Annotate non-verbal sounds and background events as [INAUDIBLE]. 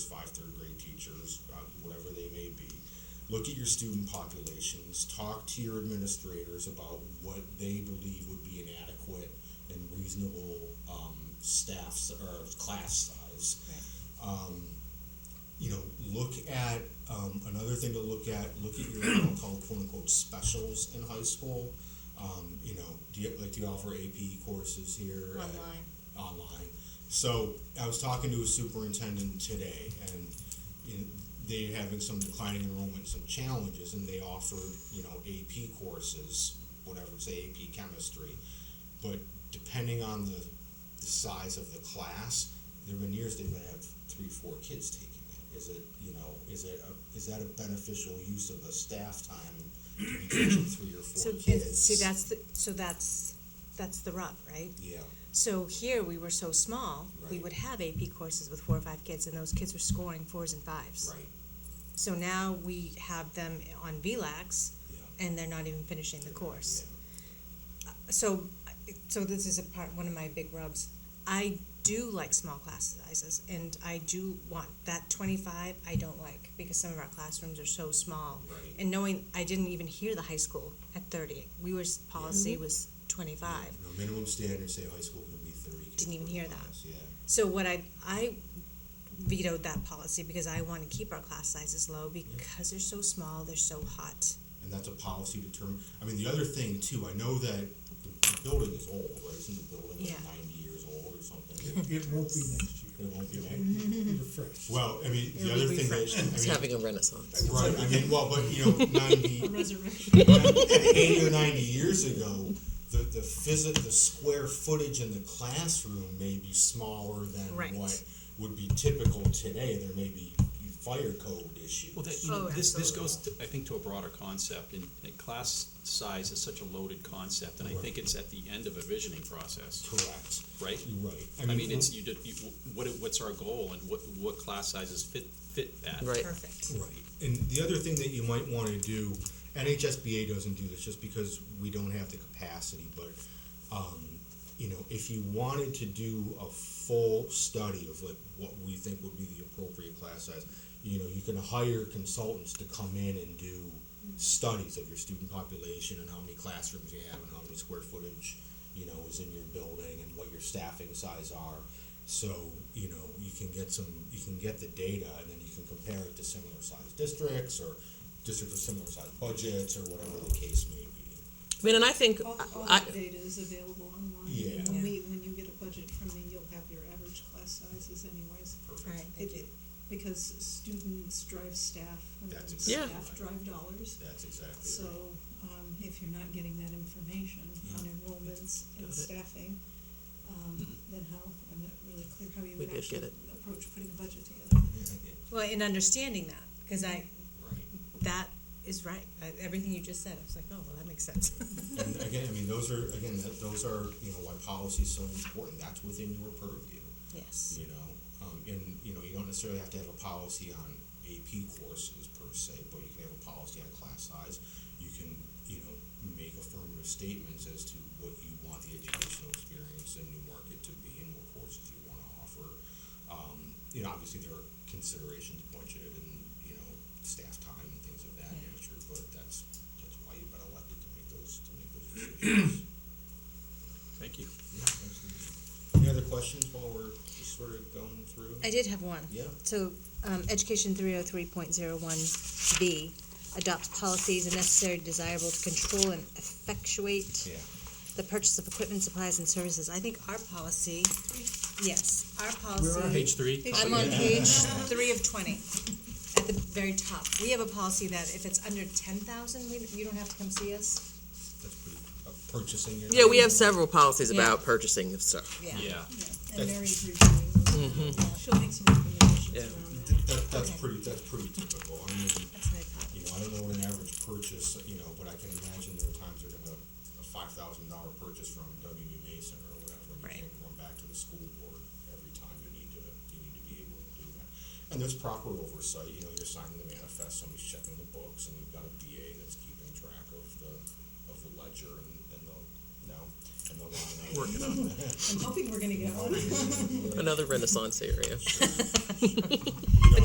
teachers, uh, whatever they may be. Look at your student populations, talk to your administrators about what they believe would be an adequate and reasonable um, staff s- or class size um, you know, look at um, another thing to look at. Look at your what I'll call quote unquote specials in high school. Um, you know, do you like do you offer AP courses here at- Online. online? So I was talking to a superintendent today, and you know, they're having some declining enrollment, some challenges, and they offered you know AP courses, whatever say AP chemistry, but depending on the, the size of the class, there've been years they've been have three, four kids taking it. Is it you know is it a, is that a beneficial use of the staff time to be teaching three or So, four and kids? see, that's, the so that's, that's the rub, right? yeah, So here, we were so small, we Right. would have AP courses with four or five kids, and those kids were scoring fours and fives. right, So now we have them on VLAX, yeah. and they're not even finishing the course. Uh, Yeah. So, so this is a part, one of my big rubs. I do like small class sizes, and I do want that twenty-five, I don't like, because some of our classrooms are so small. Right. And knowing, I didn't even hear the high school at thirty, we were, policy Mm-hmm. was twenty-five. You know, minimum standard say high school can be thirty. kids Didn't even per hear that. class, Yeah. So what I, I vetoed that policy because I want to keep our class sizes low because they're so small, they're so hot. and that's a policy determined. I mean, the other thing too, I know that the building is old, right? Isn't the building Yeah. like ninety years old or [LAUGHS] something? It won't be next year. It won't be It next- be refreshed. Well, I mean, the It'll other be thing that, refreshed. It's I mean, having a renaissance. right, I mean, well, but you know, [LAUGHS] ninety, Resurrection. eighty or ninety years ago, the, the physi, the square footage in the classroom may be smaller Right. than what would be typical today. There may be fire code issues. Well, that, you Oh, know, this, this absolutely. goes, to- I think, to a broader concept, and, and class size is such a loaded concept, and I think it's at the end of a visioning process, Correct, right? you're right. I mean, it's, you did, you, what, what's our goal, and what, what class sizes fit, fit that? Right. Perfect. Right. And the other thing that you might want to do, NHSBA doesn't do this just because we don't have the capacity, but, um, you know, if you wanted to do a full study of like what we think would be the appropriate class size, you know, you can hire consultants to come in and do studies of your student population and how many classrooms you have and how many square footage, you know, is in your building and what your staffing size are. So, you know, you can get some, you can get the data and then you can compare it to similar sized districts or districts with similar sized budgets or whatever the case may be. I mean, and I think All, all I, the data is available online. Yeah. When we, when you get a budget from me, you'll have your average class sizes anyways. Alright, It- thank you. it- Because students drive staff, and That's then exactly staff drive dollars. That's exactly So, right. um, if you're not getting that information on enrollments Got it. and Mm-hmm. staffing, um, then how, I'm not really clear how you We would did get actually it. approach putting a budget together. [LAUGHS] Well, in understanding that, because I, Right. that is right. I- Everything you just said, I was like, oh, well, that makes sense. [LAUGHS] And again, I mean, those are, again, that- those are, you know, why policy is so important. That's within your purview. Yes. you know, um, and, you know, you don't necessarily have to have a policy on AP courses per se, but you can have a policy on class size. You can, you know, make affirmative statements as to what you want the educational experience in New Market to be and what courses you want to offer. Um, you know, obviously there are considerations, budget and, you know, staff time and things of that nature, but that's, that's why you've been elected to make those, to make those decisions. Thank you. Yeah, absolutely. Any other questions while we're just sort of going through? I did have one. Yeah. So, um, Education three oh three point zero one B adopts policies and necessary desirable to control and effectuate Yeah. the purchase of equipment, supplies, and services. I think our policy, yes, our Where are policy. Page three. top I'm of on the- page three of twenty, at the very top. We have a policy that if it's under ten thousand, we, you don't have to come see us. That's pretty, uh, purchasing your. yeah, we have several policies Yeah. about purchasing of stuff. Yeah, Yeah, and Mary's reviewing, those. she'll make some recommendations Mm-hmm. Yeah. around that. That, that- that's Okay. pretty, that's pretty typical, I mean, That's my problem. you know, I don't know what an average purchase, you know, but I can imagine there are times they're gonna, a five thousand dollar purchase from W B Mason or whatever, and Right. you can't run back to the school board every time you need to, you need to be able to do that. And there's proper oversight, you know, you're signing the manifest, somebody's checking the books, and you've got a BA that's keeping track of the, of the ledger and, and the, no, and the line. item. Working on I'm hoping we're gonna get one. Another renaissance area.